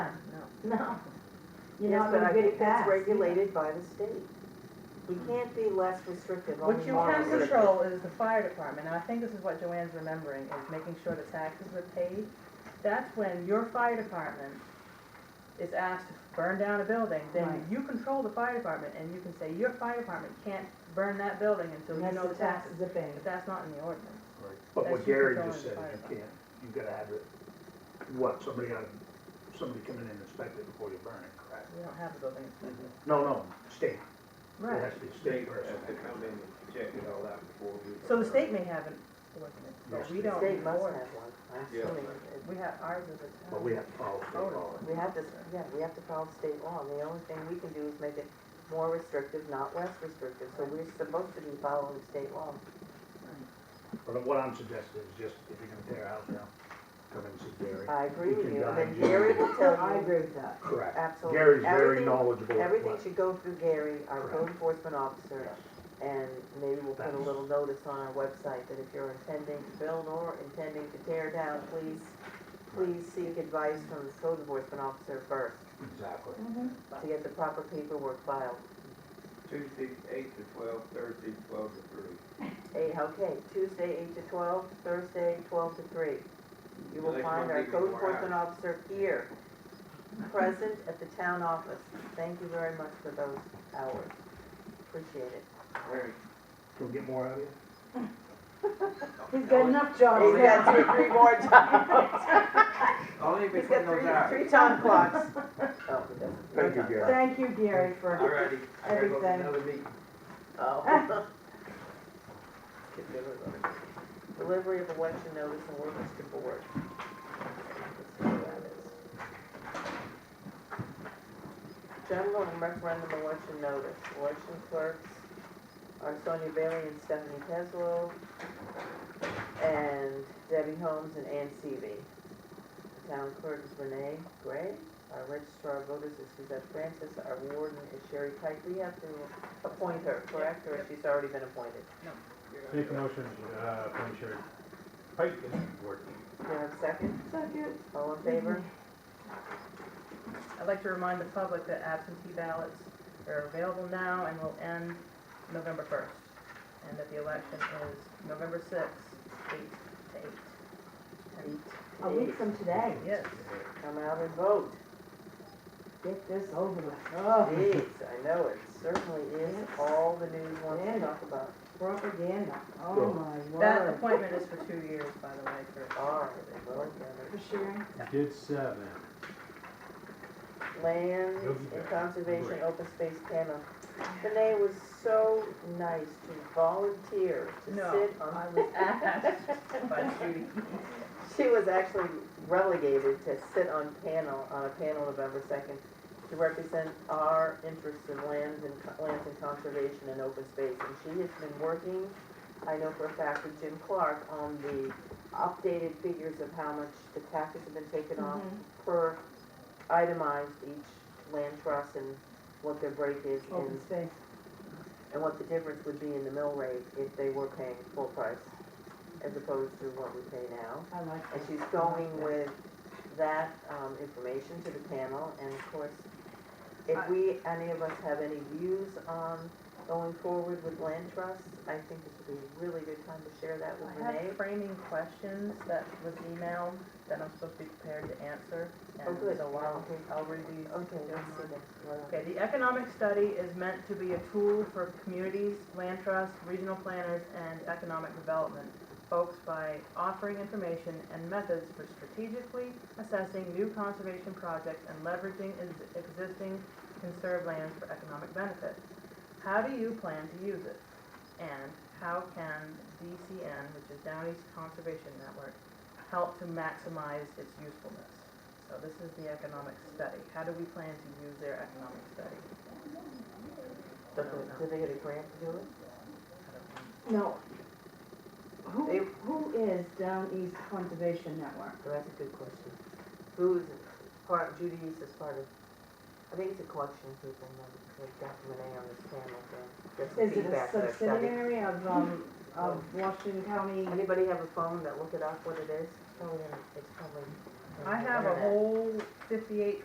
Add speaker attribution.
Speaker 1: No. You're
Speaker 2: Yes,
Speaker 1: not
Speaker 2: but
Speaker 1: gonna
Speaker 2: I
Speaker 1: get
Speaker 2: think
Speaker 1: it
Speaker 2: that's
Speaker 1: passed.
Speaker 2: regulated by the state. You can't be less restrictive on
Speaker 3: What
Speaker 2: the
Speaker 3: you
Speaker 2: water.
Speaker 3: can control is the fire department, and I think this is what Joanne's remembering, is making sure the taxes are paid. That's when your fire department is asked to burn down a building, then
Speaker 1: Right.
Speaker 3: you control the fire department, and you can say, your fire department can't burn that building until you know the taxes.
Speaker 1: are paid.
Speaker 3: But that's not in the ordinance.
Speaker 4: But what
Speaker 3: That's your
Speaker 4: Gary
Speaker 3: control
Speaker 4: just
Speaker 3: of
Speaker 4: said,
Speaker 3: the
Speaker 4: is
Speaker 3: fire.
Speaker 4: you can't, you gotta have it, what, somebody got, somebody come in and inspect it before you burn it, correct?
Speaker 3: We don't have a building inspector.
Speaker 4: No, no, state,
Speaker 1: Mm-hmm.
Speaker 4: it
Speaker 3: Right.
Speaker 4: has to be state
Speaker 5: State
Speaker 4: person.
Speaker 5: has to come in and check it all out before we.
Speaker 3: So the state may have an ordinance,
Speaker 4: Yes,
Speaker 3: but we
Speaker 4: the
Speaker 3: don't.
Speaker 2: State must
Speaker 3: enforce
Speaker 2: have
Speaker 3: it.
Speaker 2: one, I'm
Speaker 5: Yeah.
Speaker 2: assuming.
Speaker 3: We have, ours is a.
Speaker 4: But we have to follow state law.
Speaker 2: We have to, yeah, we have to follow state law, and the only thing we can do is make it more restrictive, not less restrictive, so we're supposed to be following state law.
Speaker 4: But what I'm suggesting is just, if you're gonna tear a house down, come in and see Gary.
Speaker 2: I agree with
Speaker 4: can
Speaker 2: you, and
Speaker 4: guide
Speaker 2: then
Speaker 4: you.
Speaker 2: Gary will tell
Speaker 1: I
Speaker 2: you,
Speaker 1: agree with that.
Speaker 4: Correct.
Speaker 2: absolutely.
Speaker 4: Gary's very
Speaker 2: Everything-
Speaker 4: knowledgeable. of
Speaker 2: Everything
Speaker 4: what-
Speaker 2: should go through Gary, our code
Speaker 4: Correct.
Speaker 2: enforcement officer,
Speaker 4: Yes.
Speaker 2: And maybe we'll put a
Speaker 4: That's-
Speaker 2: little notice on our website that if you're intending to build or intending to tear down, please, please seek advice from the code enforcement officer first
Speaker 4: Exactly.
Speaker 1: Mm-hmm.
Speaker 2: to get the proper paperwork filed.
Speaker 5: Tuesday, eight to twelve, Thursday, twelve to three.
Speaker 2: Eight, okay, Tuesday eight to twelve, Thursday twelve to three. You will
Speaker 5: Next
Speaker 2: find
Speaker 5: Monday,
Speaker 2: our code
Speaker 5: more hours.
Speaker 2: enforcement officer here, present at the town office. Thank you very much for those hours. Appreciate it.
Speaker 5: Very
Speaker 4: Can we get more out of you?
Speaker 1: He's got enough jobs
Speaker 2: He's got
Speaker 1: now.
Speaker 2: two, three more times.
Speaker 5: Only
Speaker 2: He's
Speaker 5: between those
Speaker 2: got
Speaker 5: hours.
Speaker 2: three, three time clocks. Oh, he doesn't.
Speaker 4: Thank you, Gary.
Speaker 1: Thank you, Gary, for,
Speaker 5: Alrighty, I gotta go to
Speaker 1: Everything.
Speaker 5: another meeting.
Speaker 2: Oh. Delivery of election notice and orders to board. Let's see what that is. General and referendum election notice, election clerks are Sonia Bailey and Stephanie Teslow, and Debbie Holmes and Ann Seavey. The Town clerk is Renee Gray, our registrar of voters is Suzette Francis, our warden is Sherry Pike. We have to appoint her, correct, or she's already been appointed?
Speaker 6: Make a motion, uh, appoint Sherry Pike as board.
Speaker 2: Do you have a second?
Speaker 1: Second.
Speaker 2: All in favor?
Speaker 3: I'd like to remind the public that absentee ballots are available now and will end November first, and that the election is November sixth, eight to eight. And
Speaker 1: a week from today,
Speaker 3: Yes,
Speaker 2: Come out and vote.
Speaker 1: get this over with. Oh,
Speaker 2: Jeez, I know, it certainly is all the news wants to talk about.
Speaker 1: propaganda,
Speaker 4: Well,
Speaker 1: oh my
Speaker 3: that
Speaker 1: word.
Speaker 3: appointment is for two years, by the way, for.
Speaker 2: All right, well, gathered.
Speaker 1: For sharing.
Speaker 6: Did seven.
Speaker 2: Land and Conservation Open Space Panel. Renee was so nice to volunteer to
Speaker 3: No,
Speaker 2: sit on.
Speaker 3: I was asked by Judy.
Speaker 2: She was actually relegated to sit on panel, on a panel November second to represent our interests in lands and, lands and conservation and open space. And she has been working, I know for a fact, with Jim Clark on the updated figures of how much the taxes have been taken off per itemized each land trust and what their break is
Speaker 1: Open
Speaker 2: and,
Speaker 1: space.
Speaker 2: and what the difference would be in the mill rate if they were paying full price as opposed to what we pay now.
Speaker 1: I like that.
Speaker 2: And she's going with that um, information to the panel, and of course, if we, any of us have any views on going forward with land trusts, I think this would be a really good time to share that with
Speaker 3: I
Speaker 2: Renee.
Speaker 3: have framing questions that was emailed that I'm supposed to be prepared to answer,
Speaker 2: Oh,
Speaker 3: and
Speaker 2: good.
Speaker 3: so I'll,
Speaker 2: Okay.
Speaker 3: I'll read these
Speaker 2: Okay, let's see this.
Speaker 3: Okay, the economic study is meant to be a tool for communities, land trusts, regional planners, and economic development folks by offering information and methods for strategically assessing new conservation projects and leveraging ex- existing conserved lands for economic benefit. How do you plan to use it? And how can DCN, which is Down East Conservation Network, help to maximize its usefulness? So this is the economic study. How do we plan to use their economic study?
Speaker 2: Do they- do they get a grant to do it?
Speaker 3: I don't know.
Speaker 1: No.
Speaker 2: They-
Speaker 1: Who, who is Down East Conservation Network?
Speaker 2: Oh, That's a good question. Who is it? part, Judy East is part of, I think it's a collection of people, um, like Dr. Renee on this panel, and get some
Speaker 1: Is it a
Speaker 2: feedback for that study.
Speaker 1: subsidiary of, um, of Washington County?
Speaker 2: Anybody have a phone that look it up, what it is? Probably, in- Oh, it's probably. on
Speaker 3: I
Speaker 2: the
Speaker 3: have a
Speaker 2: internet.
Speaker 3: whole fifty-eight